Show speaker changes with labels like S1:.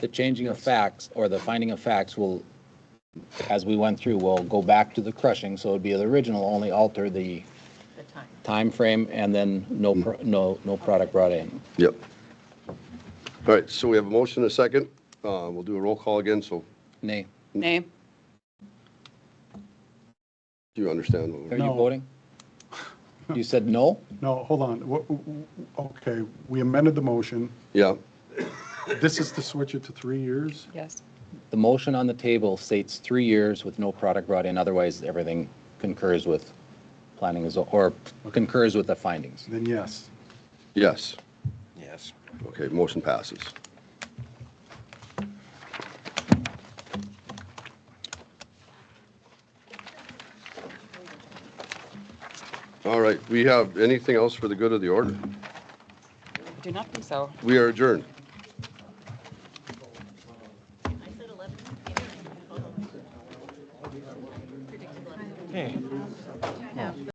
S1: the changing of facts or the finding of facts will, as we went through, will go back to the crushing, so it'd be the original, only alter the
S2: the time.
S1: time frame, and then no, pro- no, no product brought in.
S3: Yep. All right, so we have a motion, and a second. Uh, We'll do a roll call again, so
S1: Nay,
S4: Nay.
S3: you understand. what
S1: are
S3: we're-
S1: you
S5: No.
S1: voting? You said no?
S5: No, hold on. Wha- w- w- Okay, we amended the motion.
S3: Yeah,
S5: This is to switch it to three years?
S4: Yes.
S1: The motion on the table states three years with no product brought in, otherwise everything concurs with planning as, or concurs with the findings.
S5: Then yes.
S3: yes.
S6: Yes.
S3: Okay, motion passes. All right, we have anything else for the good of the order?
S4: Do not think so.
S3: We are adjourned.
S2: I said 11. Hold on. Predictable.
S6: Okay.